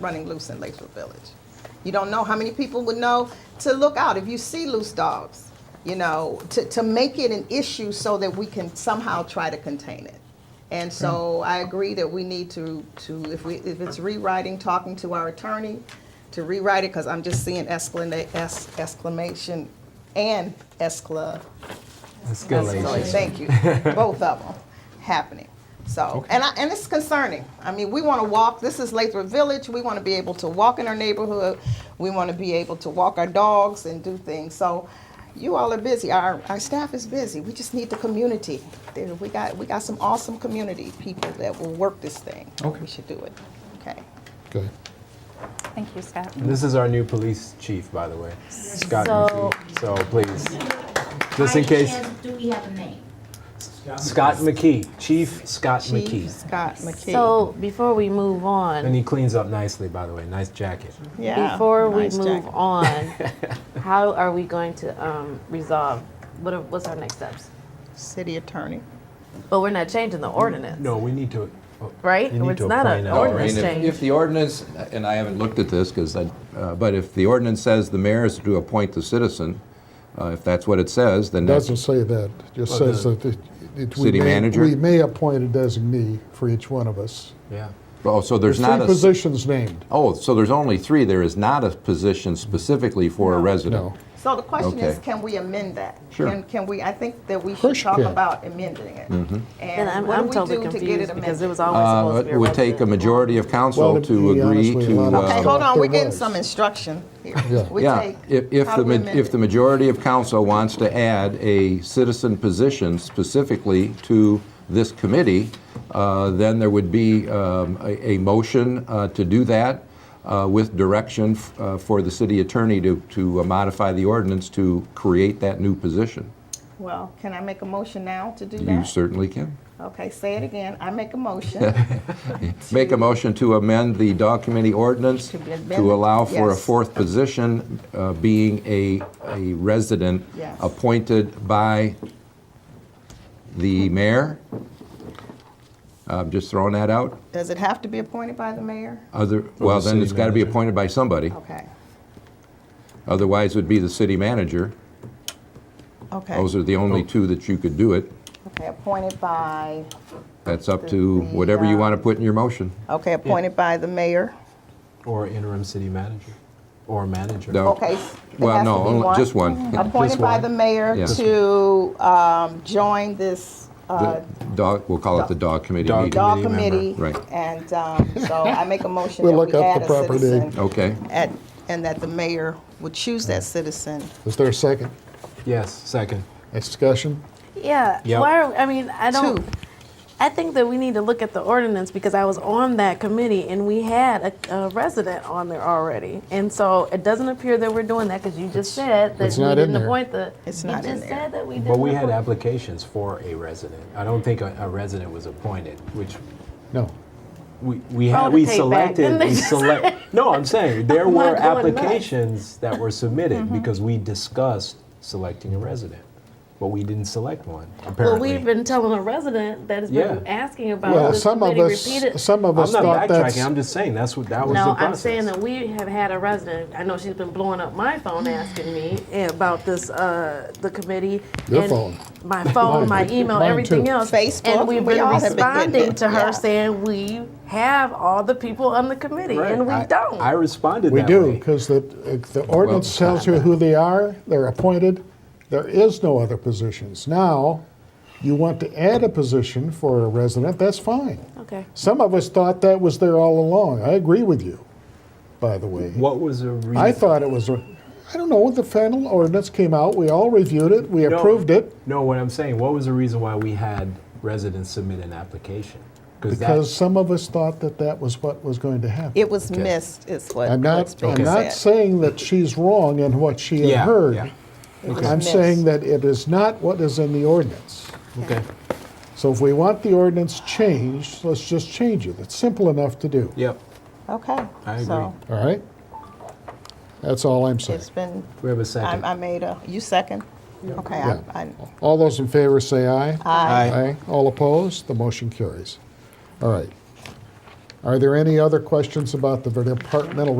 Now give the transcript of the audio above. running loose in Lakewood Village. You don't know how many people would know to look out if you see loose dogs, you know, to, to make it an issue so that we can somehow try to contain it. And so I agree that we need to, to, if we, if it's rewriting, talking to our attorney to rewrite it, because I'm just seeing exclamation, exclamation and excla, Escalation. Escalation. Thank you. Both of them happening. So, and I, and it's concerning. I mean, we want to walk. This is Lathrop Village. We want to be able to walk in our neighborhood. We want to be able to walk our dogs and do things. So, you all are busy. Our our staff is busy. We just need the community. There, we got we got some awesome community people that will work this thing. Okay. We should do it. Okay. Good. Thank you, Scott. This is our new police chief, by the way, Scott So- McKee. So please, just in By case, chance, Do we have a name? Scott McKee, Chief Scott Chief McKee. Scott McKee. So before we move And on, he cleans up nicely, by the way. Nice jacket. yeah. before we nice move jacket. on, how are we going to um, resolve? What are, what's our next steps? city attorney. But we're not changing the ordinance, No, we need to. oh, right? You need It's to not appoint an an No, I ordinance mean, if- change. If the ordinance, and I haven't looked at this, because I, uh, but if the ordinance says the mayor is to appoint the citizen, uh, if that's what it says, then that's, Doesn't say that, It just Well, says the that it- it- we city may- manager? We may appoint a designee for each one of us. Yeah. oh, so there's Three not a, positions named. oh, so there's only three, there is not a position specifically for a resident? No. So the question is, Okay. can we amend that? Sure. Can, can we, I think that we should course you talk can. about amending it. Mm-hmm. and And I'm, what do I'm we totally do to get it confused because it amended? was always Uh, supposed to be It would take a resident. majority of council Well, to to be agree honest with you, a to, lot of Okay, people- uh, hold on, we're There getting was. some instruction here. Yeah. We yeah, take, if if how the, do we ma- amend if it? the majority of council wants to add a citizen position specifically to this committee, uh, then there would be um, a a motion uh, to do that uh, with direction f- uh, for the city attorney to to uh, modify the ordinance to create that new position. Well, can I make a motion now to do You that? certainly can. Okay, say it again. I make a motion. Make a motion to amend the dog committee ordinance To be amended, to allow for a yes. fourth position uh, being a, a resident Yes. appointed by the mayor. Uh, I'm just throwing that out. Does it have to be appointed by the mayor? Other, well, then city it's got to be manager. appointed by somebody. Okay, Otherwise, it would be the city manager. okay. Those are the Oh. only two that you could do it. Okay, appointed by, That's up to whatever you want to put in your motion. okay, appointed by the mayor. Or interim city manager, or manager. No. Okay. s- there Oh. Well, has to no, be Mm-hmm. only- just one. Appointed Just by one. the mayor Yeah. to um, join this uh, The Dog, we'll call it the dog committee Dog meeting. dog committee committee. member. Right. And um, so I make a motion that We'll we look up add the a proper name. citizen. Okay. at- And that the mayor would choose that citizen. Is there a second? Yes, second. Any discussion? Yeah. Yep. Why? Are, I mean, I don't. Two. I think that we need to look at the ordinance because I was on that committee and we had a, a resident on there already, and so it doesn't appear that we're doing that because you just said that It's we not in didn't there. appoint the. It's you not in just there. said that we didn't. But we had appoint- applications for a resident. I don't think a, a resident was appointed, which No. we, we Roll had, Oh, the we tape back. selected, Didn't they we just- select, no, I'm saying, there were not going nuts. Mm-hmm. applications that were submitted because we discussed selecting a resident, but we didn't select one, Well, apparently. we've been telling a resident that has been Yeah. asking about Well, this some of committee us, repeated. some of us I'm thought not that's, backtracking, I'm just saying, that's what, that was the no, process. I'm saying that we have had a resident. I know she's been blowing up my phone asking me about this, uh, the committee. Your and phone. My phone, my Mine. email, Mine everything too. else. Facebook, And we've we been all have been getting responding it, to her yeah. saying we have all the people on the committee Right. and we I- don't. I responded we that do, way. because the, the ordinance tells you who they are, they're appointed, there is no other positions. Now, you want to add a position for a resident, that's fine. okay. Some of us thought that was there all along. I agree with you, by the way. What was the reason? I thought it was, a- I don't know, the final ordinance came out, we all reviewed it, we No. approved it. No, what I'm saying, what was the reason why we had residents submit an application? Because some of us thought that that was what was going to happen. It was Okay. missed, is what, I'm what's not, I'm being not said. saying that she's wrong in what she had Yeah, heard. yeah. It was I'm missed. saying that it is not what is in the ordinance. Okay, So if we want the ordinance changed, let's just change it. It's simple enough to do, yep, Okay. I agree. So all right? That's all I'm saying. it's been, we have a I, second. I made a, you second? Okay, I, I, All those in favor say aye. Aye. All opposed? The motion carries. All right. Are there any other questions about the departmental